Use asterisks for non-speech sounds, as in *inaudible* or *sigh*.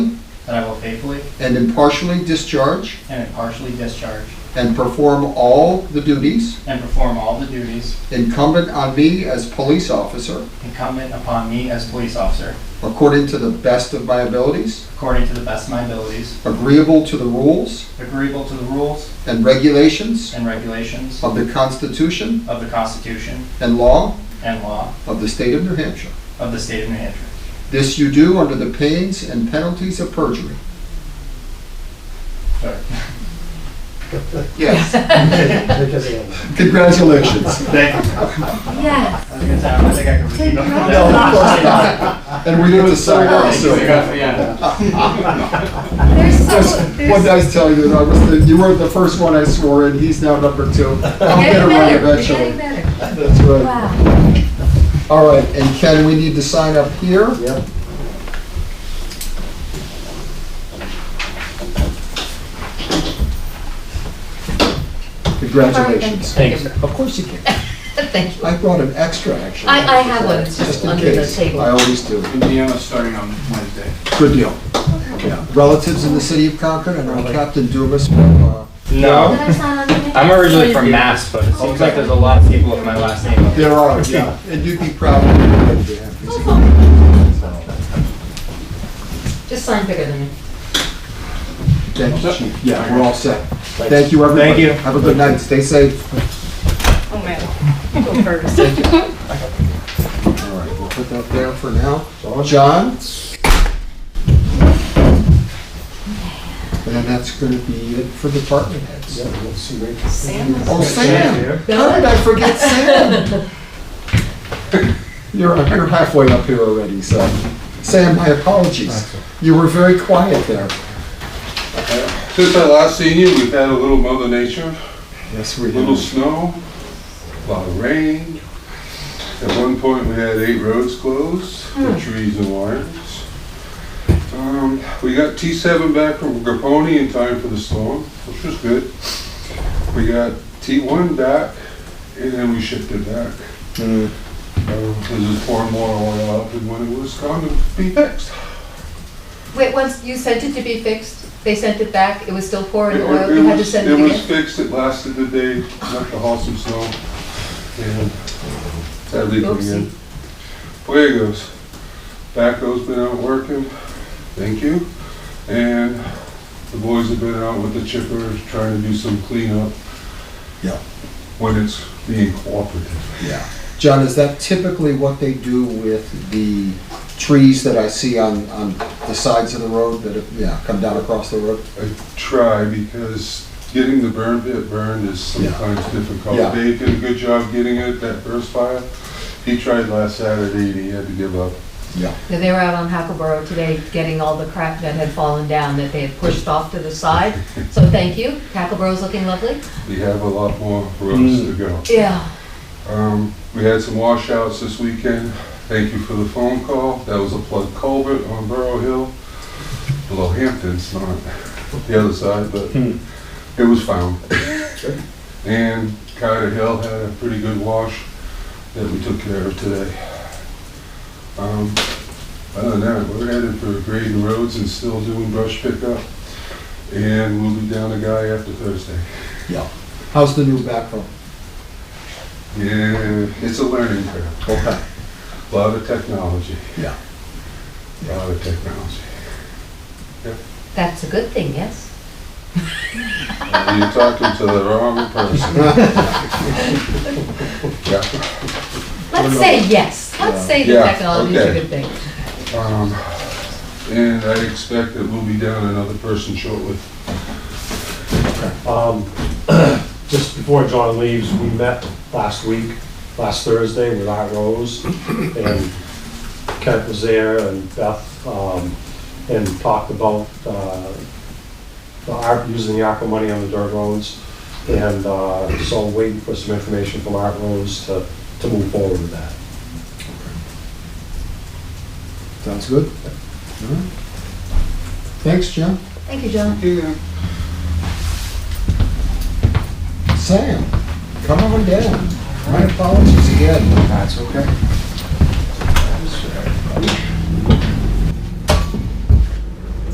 faithfully and impartially discharge and impartially discharge and perform all the duties and perform all the duties incumbent on me as police officer incumbent upon me as police officer according to the best of my abilities, according to the best of my abilities, agreeable to the rules agreeable to the rules and regulations and regulations of the Constitution of the Constitution and law and law of the state of New Hampshire. of the state of New Hampshire. This you do under the pains and penalties of perjury. Sorry. *laughs* Yes. Yes. Congratulations. Thank you. Yes. That was a good time. I think I could repeat. Congratulations. And we get to sign off Thank you. soon. Yeah. There's Just so, one there's, nice tell you, I was the- you were the first one I swore in, he's now number two. I'll get getting around better, we're eventually. getting better. That's right. Wow. All right, and Ken, we need to sign up here. Yep. Congratulations. Thanks. Of course *laughs* you can. Thank you. I brought an extra, actually. I, I have one, it's just Just in under the case. I table. always do. Indiana's starting on Wednesday. Good deal. Yeah. Relatives in the city of Concord and our Captain Dumas from, uh, Did No, I sign on your name? I'm originally from Mass, but it seems like there's a lot of people with my last name. up there. there are, yeah, and you'd be proud of them. Just sign bigger than me. Thank you, Chief. Yeah, we're all set. Thank you, everybody. Thank you. Have a good night. Stay safe. Oh, man. Go first. All right, we'll put that there for now. John? And that's gonna be it for department heads. Sam was- Oh, Sam! How did I forget Sam? You're, you're halfway up here already, so. Sam, my apologies. You were very quiet there. Since I last seen you, we've had a little mother nature, Yes, we a little snow, a lot of rain. At one point, we had eight roads closed, for trees and wires. Um, We got T7 back from Gaponi in time for the storm, which was good. We got T1 back, and then we shipped it back. Um, Mm. This is pouring more oil out than when it was going to be fixed. *laughs* Wait, once you sent it to be fixed, they sent it back, it was still pouring It- oil, it you had to was- send it It was again? fixed, it lasted the day, enough to haul some snow, and that leaked Oopsie. again. Away it goes. Backhoe's been out working, thank you, and the boys have been out with the chippers, trying to do some cleanup. Yeah. When it's being cooperative. Yeah. John, is that typically what they do with the trees that I see on, on the sides of the road that, have- yeah, come down across the road? I try because getting the burn pit burned is Yeah. sometimes difficult. Yeah. Dave did a good job getting it, that first fire. He tried last Saturday and he had to give up. Yeah. Yeah, They were out on Hackleboro today getting all the crap that had fallen down that they had pushed off to the side. So thank you, Hackleboro's looking lovely. We have a lot more roads to go. Yeah. Um, we had some washouts this weekend. Thank you for the phone call. That was a plug culvert on Burrow Hill. Below Hampton's, not the other side, but it was found. And Carter Hill had a pretty good wash that we took care of today. Um, other than that, we're headed for grading roads and still doing brush pickup. And we'll be down a guy after Thursday. Yeah. How's the new backhoe? Yeah, it's a learning curve. Okay. A Lot of technology. Yeah. A Lot of technology. That's a good thing, yes? Uh, You're talking to the wrong person. Yeah. Let's say yes, let's say the Yeah, technology's a okay. good thing. Um, And I expect that we'll be down another person shortly. Um, Just before John leaves, we met last week, last Thursday with Art Rose, and Kent was there and Beth, um, and talked about uh, the ARP, using the ARPA money on the dirt roads. And uh, so waiting for some information from Art Rose to, to move forward with that. Sounds good. All right. Thanks, John. Thank you, John. Yeah. Sam, come on down. My apologies again. That's okay.